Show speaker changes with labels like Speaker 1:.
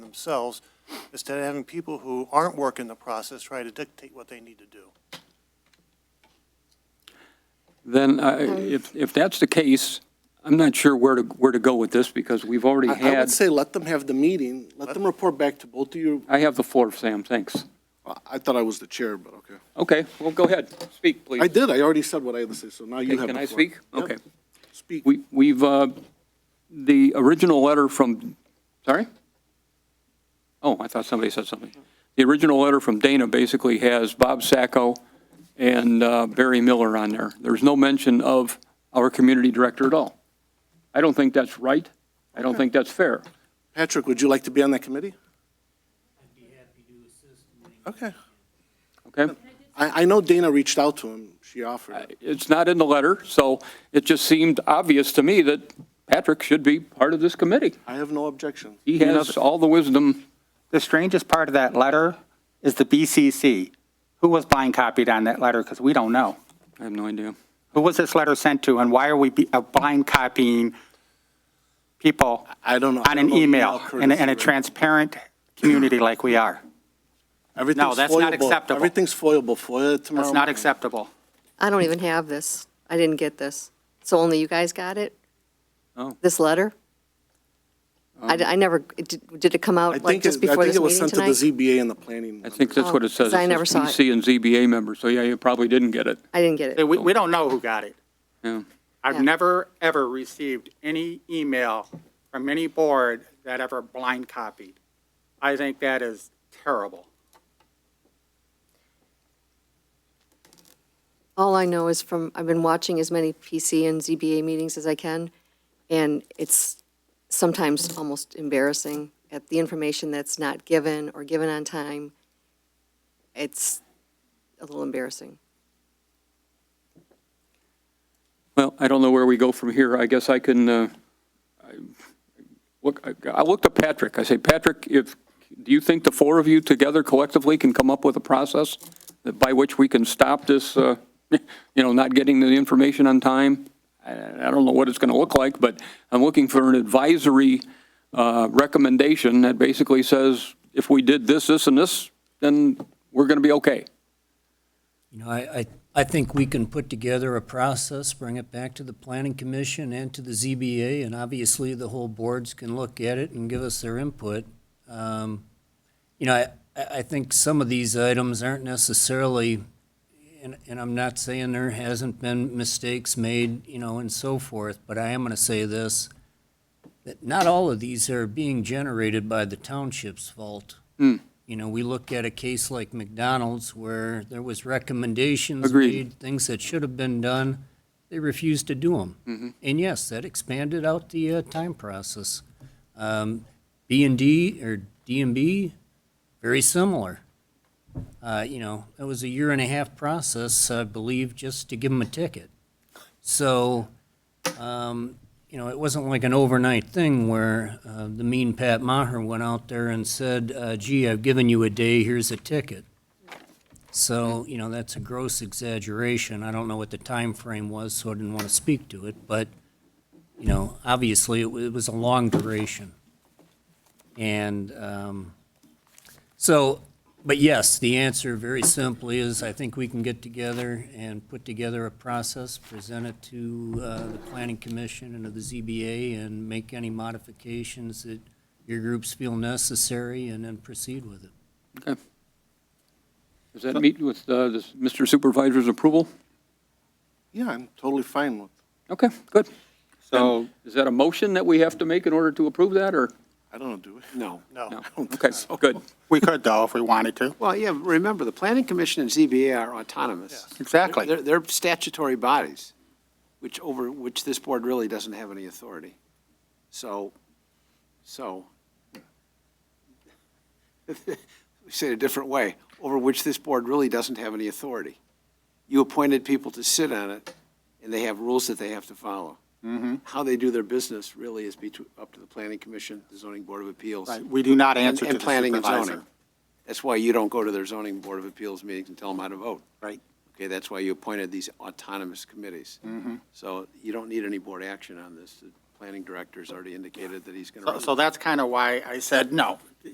Speaker 1: themselves, instead of having people who aren't working the process try to dictate what they need to do.
Speaker 2: Then, I-
Speaker 3: Um,
Speaker 2: if, if that's the case, I'm not sure where to, where to go with this, because we've already
Speaker 3: I- I would
Speaker 2: had,
Speaker 3: say let them have the meeting, let them report back to both of you.
Speaker 2: I have the floor, Sam, thanks.
Speaker 3: I- I thought I was the chair, but okay.
Speaker 2: Okay, well, go ahead, speak, please.
Speaker 3: I did, I already said what I had to say, so now you
Speaker 2: Okay,
Speaker 3: have the
Speaker 2: Can I
Speaker 3: floor.
Speaker 2: speak?
Speaker 3: Yep.
Speaker 2: Okay.
Speaker 3: Speak.
Speaker 2: We, we've, uh, the original letter from, sorry? Oh, I thought somebody said something. The original letter from Dana basically has Bob Sacco and uh, Barry Miller on there. There's no mention of our community director at all. I don't think that's right. I don't think that's fair.
Speaker 3: Patrick, would you like to be on that committee? Okay.
Speaker 2: Okay?
Speaker 3: I, I know Dana reached out to him, she offered it.
Speaker 2: It's not in the letter, so it just seemed obvious to me that Patrick should be part of this committee.
Speaker 3: I have no objection.
Speaker 2: He has all the wisdom.
Speaker 4: The strangest part of that letter is the BCC. Who was blind copied on that letter? Because we don't know.
Speaker 2: I have no idea.
Speaker 4: Who was this letter sent to, and why are we be- uh, blind copying people
Speaker 3: I don't know. I
Speaker 4: on
Speaker 3: don't
Speaker 4: an
Speaker 3: know email
Speaker 4: email in a- in
Speaker 3: courtesy,
Speaker 4: a
Speaker 3: right?
Speaker 4: transparent community like we are?
Speaker 3: Everything's
Speaker 4: No, that's not
Speaker 3: foilable.
Speaker 4: acceptable.
Speaker 3: Everything's foilable, FOIA it tomorrow.
Speaker 4: That's not
Speaker 3: morning.
Speaker 4: acceptable.
Speaker 5: I don't even have this. I didn't get this. So only you guys got it?
Speaker 2: Oh.
Speaker 5: This letter? I, d- I never, it did did it come
Speaker 3: Um, I
Speaker 5: out like
Speaker 3: think,
Speaker 5: just
Speaker 3: it- I
Speaker 5: before
Speaker 3: think
Speaker 5: this
Speaker 3: it was
Speaker 5: meeting
Speaker 3: sent to the
Speaker 5: tonight?
Speaker 3: ZBA and the planning.
Speaker 2: I think that's what
Speaker 5: Oh,
Speaker 2: it says.
Speaker 5: 'cause I never saw it.
Speaker 2: says PC and ZBA members, so yeah, you probably didn't get it.
Speaker 5: I didn't get
Speaker 4: We
Speaker 5: it.
Speaker 4: we don't know who got it.
Speaker 2: Yeah.
Speaker 4: I've
Speaker 5: Yeah.
Speaker 4: never, ever received any email from any board that ever blind copied. I think that is terrible.
Speaker 5: All I know is from, I've been watching as many PC and ZBA meetings as I can, and it's sometimes almost embarrassing at the information that's not given or given on time. It's a little embarrassing.
Speaker 2: Well, I don't know where we go from here. I guess I can, uh, I- look, I- I looked at Patrick. I say, Patrick, if, do you think the four of you together collectively can come up with a process that- by which we can stop this, uh, you know, not getting the information on time? I I don't know what it's going to look like, but I'm looking for an advisory uh, recommendation that basically says, if we did this, this, and this, then we're going to be okay.
Speaker 6: You know, I, I, I think we can put together a process, bring it back to the planning commission and to the ZBA, and obviously the whole boards can look at it and give us their input. Um, You know, I, I I think some of these items aren't necessarily, and, and I'm not saying there hasn't been mistakes made, you know, and so forth, but I am gonna say this, that not all of these are being generated by the township's fault. You know, we look at a case like McDonald's where there was recommendations
Speaker 2: Agreed.
Speaker 6: made, things that should have been done, they refused to do them. And yes, that expanded out the uh, time process. Um, B and D or D and B, very similar. Uh, you know, it was a year and a half process, I believe, just to give them a ticket. So, um, you know, it wasn't like an overnight thing where uh, the mean Pat Maher went out there and said, uh, gee, I've given you a day, here's a ticket. So, you know, that's a gross exaggeration. I don't know what the time frame was, so I didn't want to speak to it, but, you know, obviously, it wa- it was a long duration. And um, so, but yes, the answer very simply is, I think we can get together and put together a process, present it to uh, the planning commission and to the ZBA, and make any modifications that your groups feel necessary, and then proceed with it.
Speaker 2: Does that meet with uh, this- Mr. Supervisor's approval?
Speaker 3: Yeah, I'm totally fine with,
Speaker 2: Okay, good.
Speaker 4: So
Speaker 2: Is that a motion that we have to make in order to approve that, or?
Speaker 3: I don't know, do we? No.
Speaker 1: No.
Speaker 2: Okay, good.
Speaker 4: we could though, if we wanted to.
Speaker 7: Well, yeah, remember, the planning commission and ZBA are autonomous.
Speaker 4: Exactly.
Speaker 7: They're, they're statutory bodies, which over, which this board really doesn't have any authority. So, so, say it a different way, over which this board really doesn't have any authority. You appointed people to sit on it, and they have rules that they have to follow.
Speaker 4: Mm-hmm.
Speaker 7: How they do their business really is between, up to the planning commission, the zoning board of appeals.
Speaker 4: Right, We do not
Speaker 7: And,
Speaker 4: answer to
Speaker 7: and
Speaker 4: the
Speaker 7: planning and zoning.
Speaker 4: supervisor.
Speaker 7: That's why you don't go to their zoning board of appeals meetings and tell them how to vote.
Speaker 4: Right.
Speaker 7: Okay, that's why you appointed these autonomous committees.
Speaker 4: Mm-hmm.
Speaker 7: So you don't need any board action on this. The planning director's already indicated that he's going to
Speaker 4: So-
Speaker 7: run.
Speaker 4: So that's kind of why I said no.